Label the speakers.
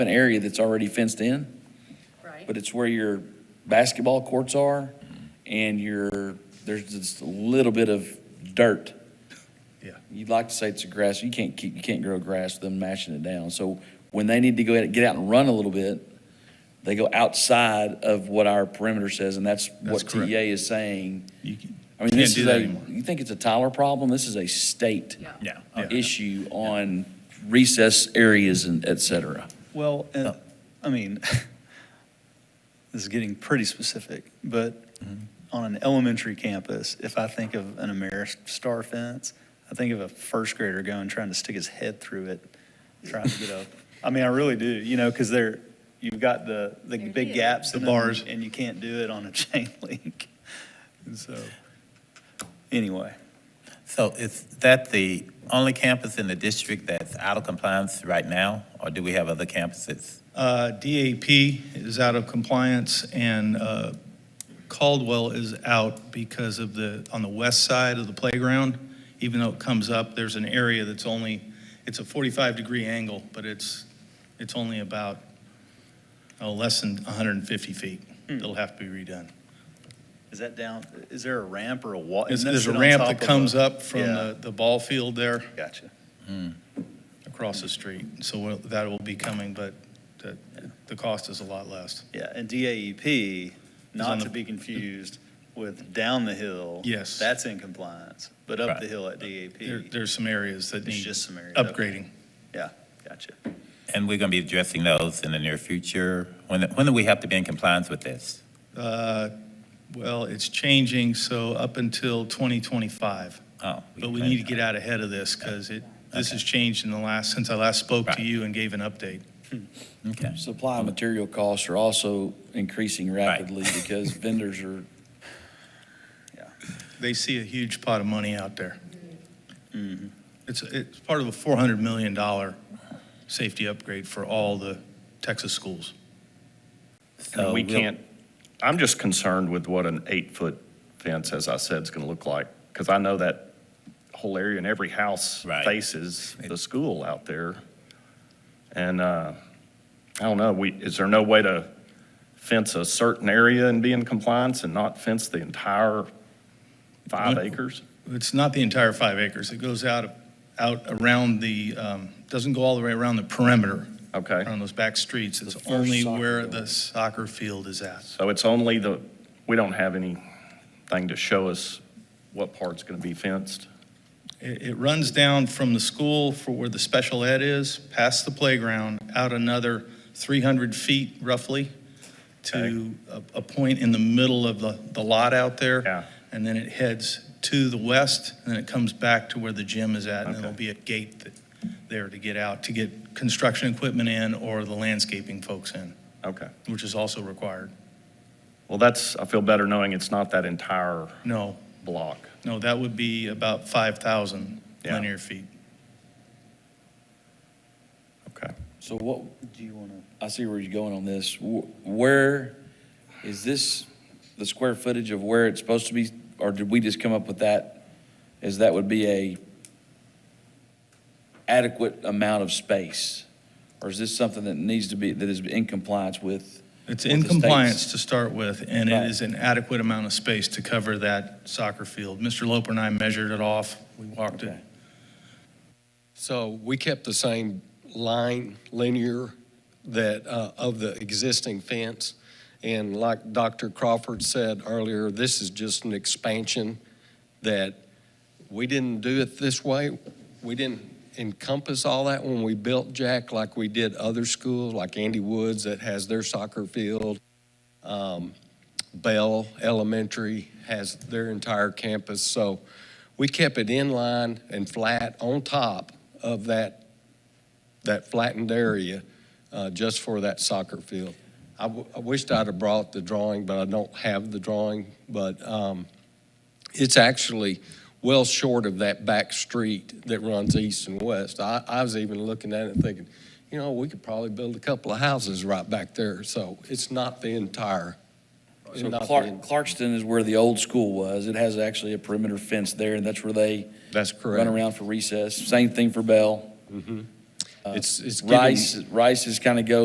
Speaker 1: an area that's already fenced in,
Speaker 2: Right.
Speaker 1: but it's where your basketball courts are and your, there's just a little bit of dirt.
Speaker 3: Yeah.
Speaker 1: You'd like to say it's a grass, you can't keep, you can't grow grass with them mashing it down. So when they need to go ahead and get out and run a little bit, they go outside of what our perimeter says, and that's
Speaker 3: That's
Speaker 1: what
Speaker 3: correct.
Speaker 1: TA is saying.
Speaker 4: You can-
Speaker 1: I mean,
Speaker 4: Can't
Speaker 1: this
Speaker 4: do
Speaker 1: is
Speaker 4: that
Speaker 1: a,
Speaker 4: anymore.
Speaker 1: you think it's a Tyler problem? This is a state
Speaker 2: Yeah.
Speaker 4: Yeah.
Speaker 1: uh, issue on recess areas and et cetera.
Speaker 5: Well, and, I mean, this is getting pretty specific, but on an elementary campus, if I think of an Ameristar fence, I think of a first grader going, trying to stick his head through it, trying to get up. I mean, I really do, you know, because they're, you've got the, the
Speaker 2: They're
Speaker 5: big
Speaker 2: here.
Speaker 5: gaps.
Speaker 3: The
Speaker 5: in them,
Speaker 3: bars.
Speaker 5: And you can't do it on a chain link. And so, anyway,
Speaker 4: So is that the only campus in the district that's out of compliance right now, or do we have other campuses?
Speaker 3: Uh, DAP is out of compliance, and uh, Caldwell is out because of the, on the west side of the playground, even though it comes up, there's an area that's only, it's a 45-degree angle, but it's, it's only about, oh, less than 150 feet.
Speaker 5: Hmm.
Speaker 3: It'll have to be redone.
Speaker 5: is that down, is there a ramp or a wall?
Speaker 3: There's
Speaker 5: Isn't that
Speaker 3: there's a
Speaker 5: sit on
Speaker 3: ramp
Speaker 5: top
Speaker 3: that
Speaker 5: of a-
Speaker 3: comes up from
Speaker 5: Yeah,
Speaker 3: the, the ball field there
Speaker 5: Gotcha.
Speaker 4: Hmm.
Speaker 3: across the street, so we'll- that will be coming, but the, the cost is a lot less.
Speaker 5: Yeah, and
Speaker 3: on
Speaker 5: DAEP, not
Speaker 3: the-
Speaker 5: to be confused with down the hill.
Speaker 3: Yes.
Speaker 5: That's in compliance, but up the
Speaker 4: Right.
Speaker 5: hill at E
Speaker 3: There,
Speaker 5: DAP,
Speaker 3: there's some areas that
Speaker 5: it's
Speaker 3: need
Speaker 5: just some area.
Speaker 3: upgrading.
Speaker 5: Gotcha.
Speaker 4: And we're going to be addressing those in the near future. When, when do we have to be in compliance with this?
Speaker 3: Uh, Well, it's changing, so up until 2025.
Speaker 4: Oh,
Speaker 3: But we need to get out ahead of this because it, this has changed in the last, since I last spoke to
Speaker 4: Right.
Speaker 3: you and gave an update.
Speaker 4: Okay.
Speaker 1: Supply and material costs are also increasing rapidly because vendors are,
Speaker 3: They see a huge pot of money out there. It's, it's part of a $400 million safety upgrade for all the Texas schools.
Speaker 4: So
Speaker 6: And we
Speaker 4: Uh, we'll-
Speaker 6: can't, I'm just concerned with what an eight-foot fence, as I said, is going to look like, because I know that whole area and every house
Speaker 4: Right.
Speaker 6: faces the school out there. And, uh, I don't know, we, is there no way to fence a certain area and be in compliance and not fence the entire five
Speaker 3: What-
Speaker 6: acres?
Speaker 3: It's not the entire five acres. It goes out, out around the, um, doesn't go all the way around the perimeter.
Speaker 6: Okay,
Speaker 3: on those back streets, it's
Speaker 1: The first
Speaker 3: only
Speaker 1: soccer
Speaker 3: where
Speaker 1: field.
Speaker 3: the soccer field is at.
Speaker 6: so it's only the, we don't have anything to show us what part's going to be fenced?
Speaker 3: It, it runs down from the school for where the special ed is, past the playground, out another 300 feet roughly to a, a point in the middle of the, the lot out there.
Speaker 6: Yeah.
Speaker 3: And then it heads to the west, and then it comes back to where the gym is at, and then there'll be a gate that, there to get out, to get construction equipment in or the landscaping folks in,
Speaker 6: Okay.
Speaker 3: which is also required.
Speaker 6: Well, that's, I feel better knowing it's not that entire
Speaker 3: No,
Speaker 6: block.
Speaker 3: No, that would be about 5,000
Speaker 6: Yeah.
Speaker 3: linear feet.
Speaker 6: Okay.
Speaker 1: so what,
Speaker 5: Do you want to?
Speaker 1: I see where you're going on this. Wh- Where, is this the square footage of where it's supposed to be? Or did we just come up with that, as that would be a adequate amount of space? Or is this something that needs to be, that is in compliance with?
Speaker 3: It's
Speaker 1: with
Speaker 3: in
Speaker 1: the state's-
Speaker 3: compliance to start with, and it
Speaker 1: Right.
Speaker 3: is an adequate amount of space to cover that soccer field. Mr. Loper and I measured it off, we walked it.
Speaker 1: Okay.
Speaker 7: So we kept the same line, linear, that, uh, of the existing fence. And like Dr. Crawford said earlier, this is just an expansion that we didn't do it this way. We didn't encompass all that when we built Jack like we did other schools, like Andy Woods that has their soccer field. Um, Bell Elementary has their entire campus. So we kept it in line and flat on top of that, that flattened area uh, just for that soccer field. I w- I wished I'd have brought the drawing, but I don't have the drawing. But um, it's actually well short of that back street that runs east and west. I I was even looking at it and thinking, you know, we could probably build a couple of houses right back there. So it's not the entire.
Speaker 1: So
Speaker 7: not the en-
Speaker 1: Clark, Clarkston is where the old school was. It has actually a perimeter fence there, and that's where they
Speaker 7: That's correct. Mm-hmm.
Speaker 1: run around for recess. Same thing for Bell.
Speaker 7: It's, it's getting.
Speaker 1: Uh, Rice, Rice is kind of go